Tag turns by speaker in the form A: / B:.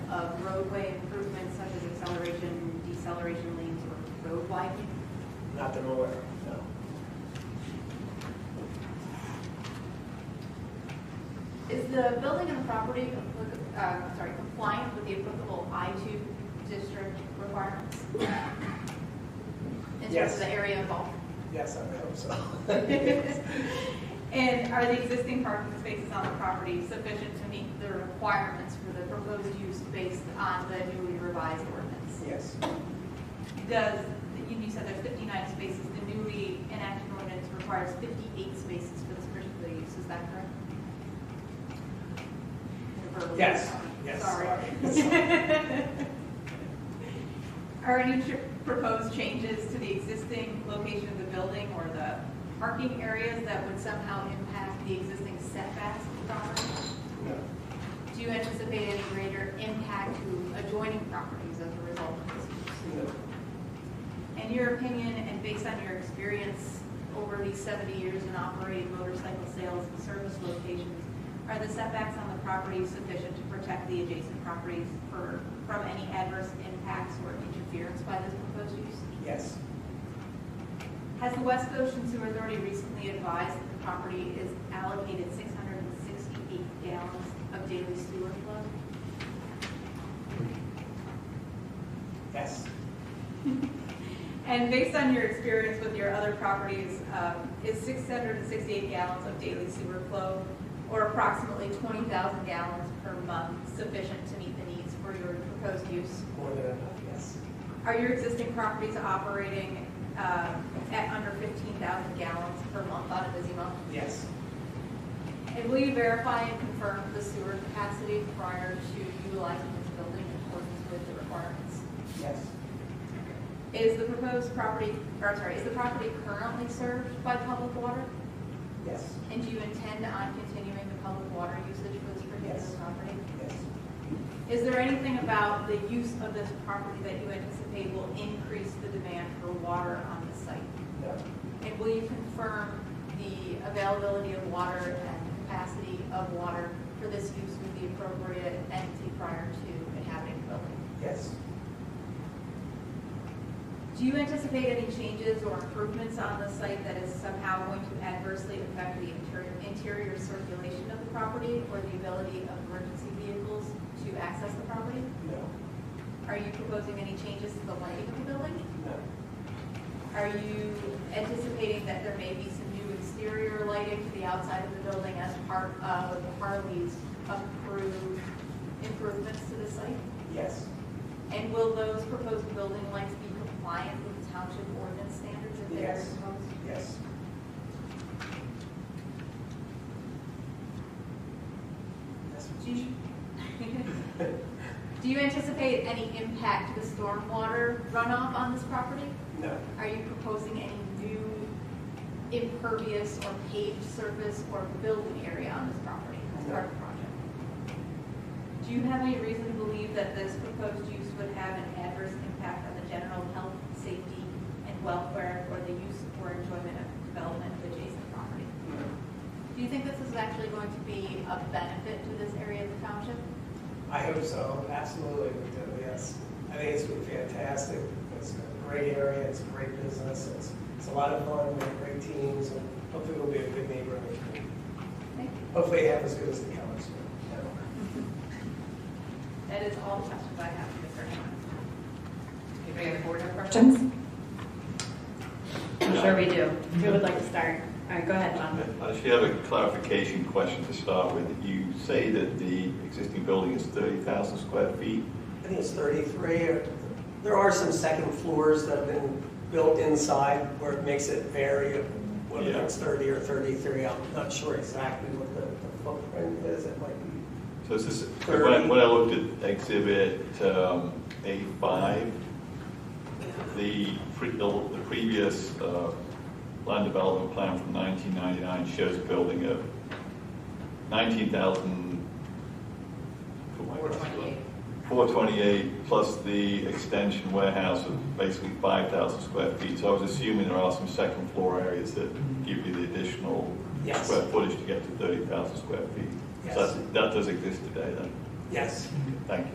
A: roadway improvements such as acceleration, deceleration lanes, or road widening?
B: Not that I'm aware of, no.
A: Is the building and property, applica- uh, sorry, compliant with the applicable I-2 district requirements? In terms
B: Yes.
A: of the area involved?
B: Yes, I hope so.
A: And are the existing parking spaces on the property sufficient to meet the requirements for the proposed use based on the newly revised ordinance?
B: Yes,
A: Does, you you said there's 59 spaces, the newly enacted ordinance requires 58 spaces for this particular use, is that correct? Verbally,
B: yes,
A: sorry.
B: yes,
A: Sorry.
B: sorry.
A: Are any tr- proposed changes to the existing location of the building or the parking areas that would somehow impact the existing setbacks of the property?
B: No,
A: Do you anticipate any greater impact to adjoining properties as a result of this use?
B: no.
A: In your opinion, and based on your experience over these 70 years in operating motorcycle sales and service locations, are the setbacks on the property sufficient to protect the adjacent properties for, from any adverse impacts or interference by this proposed use?
B: Yes,
A: Has the West Ocean Sewer Authority recently advised that the property is allocated 668 gallons of daily sewer flow?
B: yes,
A: And based on your experience with your other properties, um, is 668 gallons of daily sewer flow, or approximately 20,000 gallons per month, sufficient to meet the needs for your proposed use?
B: more than enough, yes.
A: Are your existing properties operating uh, at under 15,000 gallons per month on a busy month?
B: Yes,
A: And will you verify and confirm the sewer capacity prior to utilizing this building in accordance with the requirements?
B: yes,
A: Is the proposed property, or sorry, is the property currently served by public water?
B: yes,
A: And do you intend on continuing the public water usage for this
B: Yes.
A: particular property?
B: yes,
A: Is there anything about the use of this property that you anticipate will increase the demand for water on the site?
B: no,
A: And will you confirm the availability of water and capacity of water for this use with the appropriate entity prior to inhabiting the building?
B: yes,
A: Do you anticipate any changes or improvements on the site that is somehow going to adversely affect the interior, interior circulation of the property or the ability of emergency vehicles to access the property?
B: no,
A: Are you proposing any changes to the lighting of the building?
B: no,
A: Are you anticipating that there may be some new exterior lighting to the outside of the building as part of Harley's approved improvements to the site?
B: yes,
A: And will those proposed building lights be compliant with the township ordinance standards if they are
B: Yes.
A: proposed?
B: yes, yes.
A: Do you- Do you anticipate any impact to the stormwater runoff on this property?
B: No,
A: Are you proposing any new impervious or paved surface or building area on this property as part of the project? Do you have any reason to believe that this proposed use would have an adverse impact on the general health, safety, and welfare or the use or enjoyment of development of adjacent property?
B: no,
A: Do you think this is actually going to be a benefit to this area of the township?
B: I hope so, absolutely, we do, yes. I think it's been fantastic, it's a great area, it's a great business, it's, it's a lot of fun, we have great teams, and hopefully we'll be a good neighbor in the community.
A: Thank you.
B: Hopefully half as good as the Cowboys were.
A: That is all the questions I have for Mr. Hammond.
C: Anybody have board member questions? I'm sure we do. Who would like to start? All right, go ahead, John.
D: I actually have a clarification question to start with. You say that the existing building is 30,000 square feet.
B: I think it's 33, or, there are some second floors that have been built inside where it makes it vary, whether
D: Yeah.
B: it's 30 or 33, I'm not sure exactly what the the footprint is, it might be
D: So is this, when I- when I looked at exhibit um, A5, the, pre- the the previous uh, land development plan from 1999 shows a building of 19,000. oh my gosh,
C: 428.
D: 428 plus the extension warehouse of basically 5,000 square feet. So I was assuming there are some second floor areas that give you the additional
B: Yes.
D: square footage to get to 30,000 square feet. So
B: Yes.
D: that's- that does exist today then?
B: Yes.
D: Thank you.